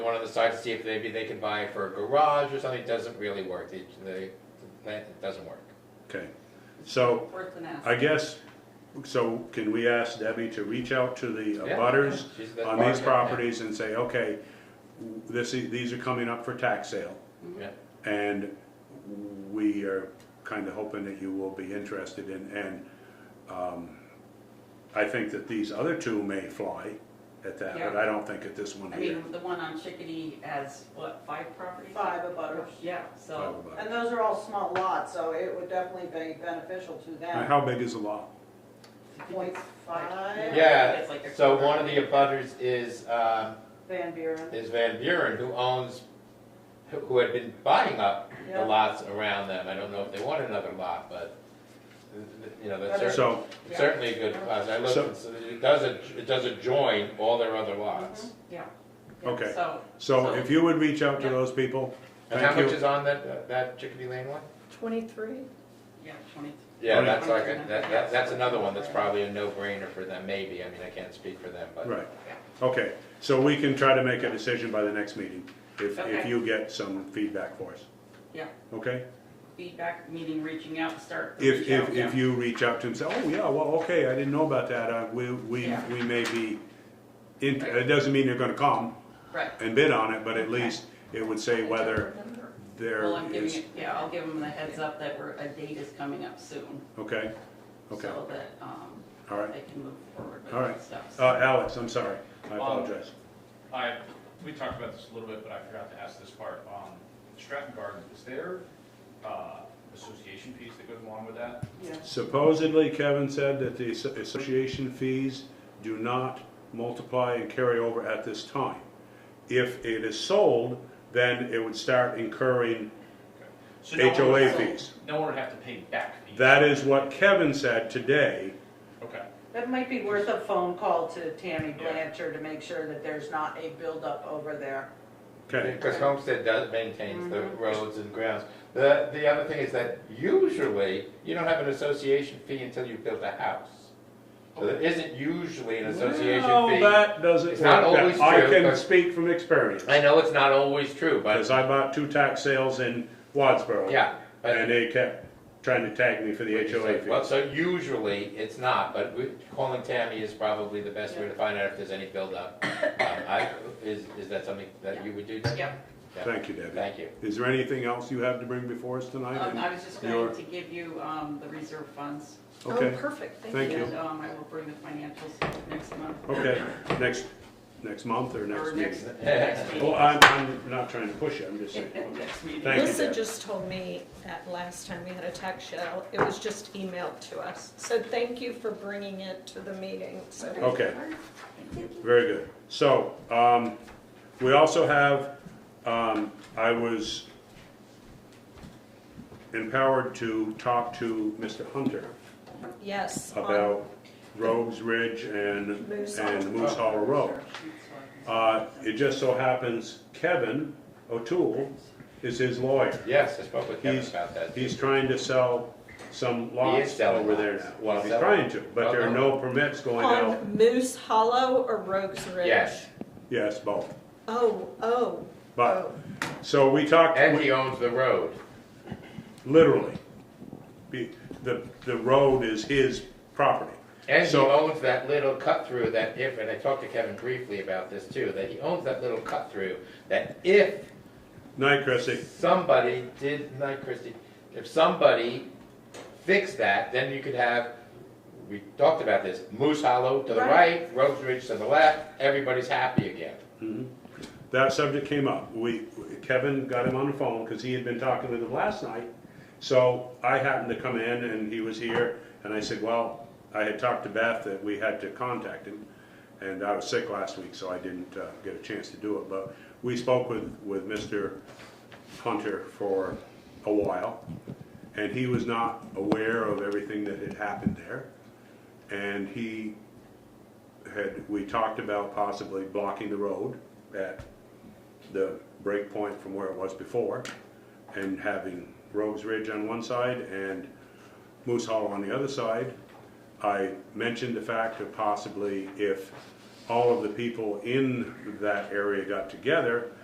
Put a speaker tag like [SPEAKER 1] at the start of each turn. [SPEAKER 1] One of the sites, see if maybe they can buy it for a garage or something, It doesn't really work, the, the, the plan, it doesn't work.
[SPEAKER 2] Okay, so
[SPEAKER 3] Worth an ask.
[SPEAKER 2] I guess, so can we ask Debbie to reach out to the
[SPEAKER 1] Yeah.
[SPEAKER 2] butters
[SPEAKER 1] She's the
[SPEAKER 2] on
[SPEAKER 1] bartender,
[SPEAKER 2] these
[SPEAKER 1] yeah.
[SPEAKER 2] properties and say, okay, this, is- these are coming up for tax sale,
[SPEAKER 1] Yeah,
[SPEAKER 2] and we are kind of hoping that you will be interested in, and um, I think that these other two may fly at that, but I don't think at this one
[SPEAKER 3] I
[SPEAKER 2] here.
[SPEAKER 3] mean, the one on Chickadee has, what, five properties?
[SPEAKER 4] five abutters.
[SPEAKER 3] Yeah, so,
[SPEAKER 2] Probably.
[SPEAKER 4] And those are all small lots, so it would definitely be beneficial to
[SPEAKER 2] Now,
[SPEAKER 4] them.
[SPEAKER 2] How big is the lot?
[SPEAKER 4] Point five.
[SPEAKER 1] yeah,
[SPEAKER 3] It's like a
[SPEAKER 1] so
[SPEAKER 3] quarter.
[SPEAKER 1] one of the abutters is, um,
[SPEAKER 4] Van Buren,
[SPEAKER 1] is Van Buren, who owns, who- who had been buying up the
[SPEAKER 4] Yeah.
[SPEAKER 1] lots around them, I don't know if they want another lot, but, you know, that's cer-
[SPEAKER 2] So,
[SPEAKER 4] yeah.
[SPEAKER 1] certainly a good cause, I looked,
[SPEAKER 2] So-
[SPEAKER 1] and so it doesn't, it doesn't join all their other lots.
[SPEAKER 3] Yeah.
[SPEAKER 2] okay,
[SPEAKER 3] So,
[SPEAKER 2] so if you would reach out to
[SPEAKER 3] Yeah.
[SPEAKER 2] those people,
[SPEAKER 1] And how
[SPEAKER 2] thank
[SPEAKER 1] much
[SPEAKER 2] you.
[SPEAKER 1] is on that, that Chickadee Lane one?
[SPEAKER 5] Twenty-three?
[SPEAKER 3] yeah, twenty,
[SPEAKER 1] Yeah,
[SPEAKER 2] Right.
[SPEAKER 1] that's like, a- that, that, that's another one that's probably a no-brainer for them, maybe, I mean, I can't speak for them, but.
[SPEAKER 2] Right, okay, so we can try to make a decision by the next meeting, if, if
[SPEAKER 3] Okay.
[SPEAKER 2] you get some feedback for us,
[SPEAKER 3] yeah,
[SPEAKER 2] okay?
[SPEAKER 3] feedback, meeting, reaching out, start. the
[SPEAKER 2] If,
[SPEAKER 3] reach
[SPEAKER 2] if,
[SPEAKER 3] out,
[SPEAKER 2] if
[SPEAKER 3] yeah.
[SPEAKER 2] you reach out to him, say, oh, yeah, well, okay, I didn't know about that, uh, we, we,
[SPEAKER 3] Yeah.
[SPEAKER 2] we may be, int- it doesn't mean they're gonna come
[SPEAKER 3] Right,
[SPEAKER 2] and bid on it, but at least it would say whether
[SPEAKER 3] well,
[SPEAKER 2] there
[SPEAKER 3] I'm giving
[SPEAKER 2] is,
[SPEAKER 3] it, yeah, I'll give them the heads up that we're, a date is coming up soon.
[SPEAKER 2] okay? Okay,
[SPEAKER 3] So that, um,
[SPEAKER 2] all right,
[SPEAKER 3] they can move forward with
[SPEAKER 2] all right,
[SPEAKER 3] that stuff.
[SPEAKER 2] uh, Alex, I'm sorry, I apologize,
[SPEAKER 6] I, we talked about this a little bit, but I forgot to ask this part. Um, Stratton Gardens, is there, uh, association fees that goes along with that?
[SPEAKER 4] yeah.
[SPEAKER 2] Supposedly, Kevin said that the asso- association fees do not multiply and carry over at this time. If it is sold, then it would start incurring,
[SPEAKER 6] So no one would-
[SPEAKER 2] HOA fees.
[SPEAKER 6] No one would have to pay back fees?
[SPEAKER 2] that is what Kevin said today.
[SPEAKER 6] Okay,
[SPEAKER 4] That might be worth a phone call to Tammy Blanchard to make sure that there's not a buildup over there.
[SPEAKER 2] Okay,
[SPEAKER 1] Because Homestead does maintains the roads and grounds. The, the other thing is that usually, you don't have an association fee until you've built a house. So there isn't usually an association
[SPEAKER 2] Well,
[SPEAKER 1] fee.
[SPEAKER 2] that doesn't
[SPEAKER 1] It's not
[SPEAKER 2] work.
[SPEAKER 1] always
[SPEAKER 2] I
[SPEAKER 1] true,
[SPEAKER 2] can
[SPEAKER 1] but-
[SPEAKER 2] speak from experience,
[SPEAKER 1] I know it's not always true, but,
[SPEAKER 2] because I bought two tax sales in Wadsboro,
[SPEAKER 1] yeah. but-
[SPEAKER 2] and they kept trying to tag me for the HOA
[SPEAKER 1] Well,
[SPEAKER 2] fees.
[SPEAKER 1] so usually it's not, but we- calling Tammy is probably the best way to find out if there's any buildup. Um, I, is, is that something that you would do?
[SPEAKER 2] Uh,
[SPEAKER 1] Debbie?
[SPEAKER 3] Yeah.
[SPEAKER 1] Yeah.
[SPEAKER 2] Thank you, Debbie.
[SPEAKER 1] Thank you.
[SPEAKER 2] Is there anything else you have to bring before us tonight?
[SPEAKER 3] Um, I was just
[SPEAKER 2] Your-
[SPEAKER 3] going to give you, um, the reserve funds.
[SPEAKER 2] Okay.
[SPEAKER 5] Oh, perfect, thank you.
[SPEAKER 2] Thank you.
[SPEAKER 3] And, um, I will bring the financials next month.
[SPEAKER 2] Okay, next, next month or next
[SPEAKER 3] Or
[SPEAKER 2] meeting?
[SPEAKER 3] next, next
[SPEAKER 2] Well,
[SPEAKER 3] meeting.
[SPEAKER 2] I'm, I'm not trying to push you, I'm just saying, okay.
[SPEAKER 3] Next meeting.
[SPEAKER 2] Thank you, Deb.
[SPEAKER 5] Lisa just told me that last time we had a tax shell, it was just emailed to us. So thank you for bringing it to the meeting, so.
[SPEAKER 2] Okay, very good. So, um, we also have, um, I was empowered to talk to Mr. Hunter
[SPEAKER 5] Yes. on-
[SPEAKER 2] about Rogues Ridge and,
[SPEAKER 5] Moose Hall.
[SPEAKER 2] and Moose Hall Road. Uh, it just so happens Kevin O'Toole is his lawyer.
[SPEAKER 1] Yes, I spoke with Kevin
[SPEAKER 2] He's,
[SPEAKER 1] about that.
[SPEAKER 2] he's trying to sell some lots
[SPEAKER 1] selling
[SPEAKER 2] over there
[SPEAKER 1] lots.
[SPEAKER 2] now. Well,
[SPEAKER 1] He's
[SPEAKER 2] he's
[SPEAKER 1] selling.
[SPEAKER 2] trying to, but there are no permits going out.
[SPEAKER 5] On Moose Hollow or Rogues Ridge?
[SPEAKER 1] Yes,
[SPEAKER 2] Yes, both.
[SPEAKER 5] Oh, oh,
[SPEAKER 2] But,
[SPEAKER 5] oh.
[SPEAKER 2] so we talked,
[SPEAKER 1] and
[SPEAKER 2] we-
[SPEAKER 1] he owns the road.
[SPEAKER 2] literally. Be- The, the road is his property.
[SPEAKER 1] And he
[SPEAKER 2] So-
[SPEAKER 1] owns that little cut through that if, and I talked to Kevin briefly about this too, that he owns that little cut through that if
[SPEAKER 2] Night, Chrissy.
[SPEAKER 1] somebody did, not Christie, if somebody fixed that, then you could have, we talked about this, Moose Hollow to the
[SPEAKER 5] Right.
[SPEAKER 1] right, Rose Ridge to the left, everybody's happy again.
[SPEAKER 2] That subject came up. We, Kevin got him on the phone because he had been talking with him last night. So I happened to come in and he was here and I said, well, I had talked to Beth that we had to contact him. And I was sick last week, so I didn't uh, get a chance to do it. But we spoke with, with Mr. Hunter for a while. And he was not aware of everything that had happened there. And he had, we talked about possibly blocking the road at the break point from where it was before and having Rogues Ridge on one side and Moose Hollow on the other side. I mentioned the fact of possibly if all of the people in that area got together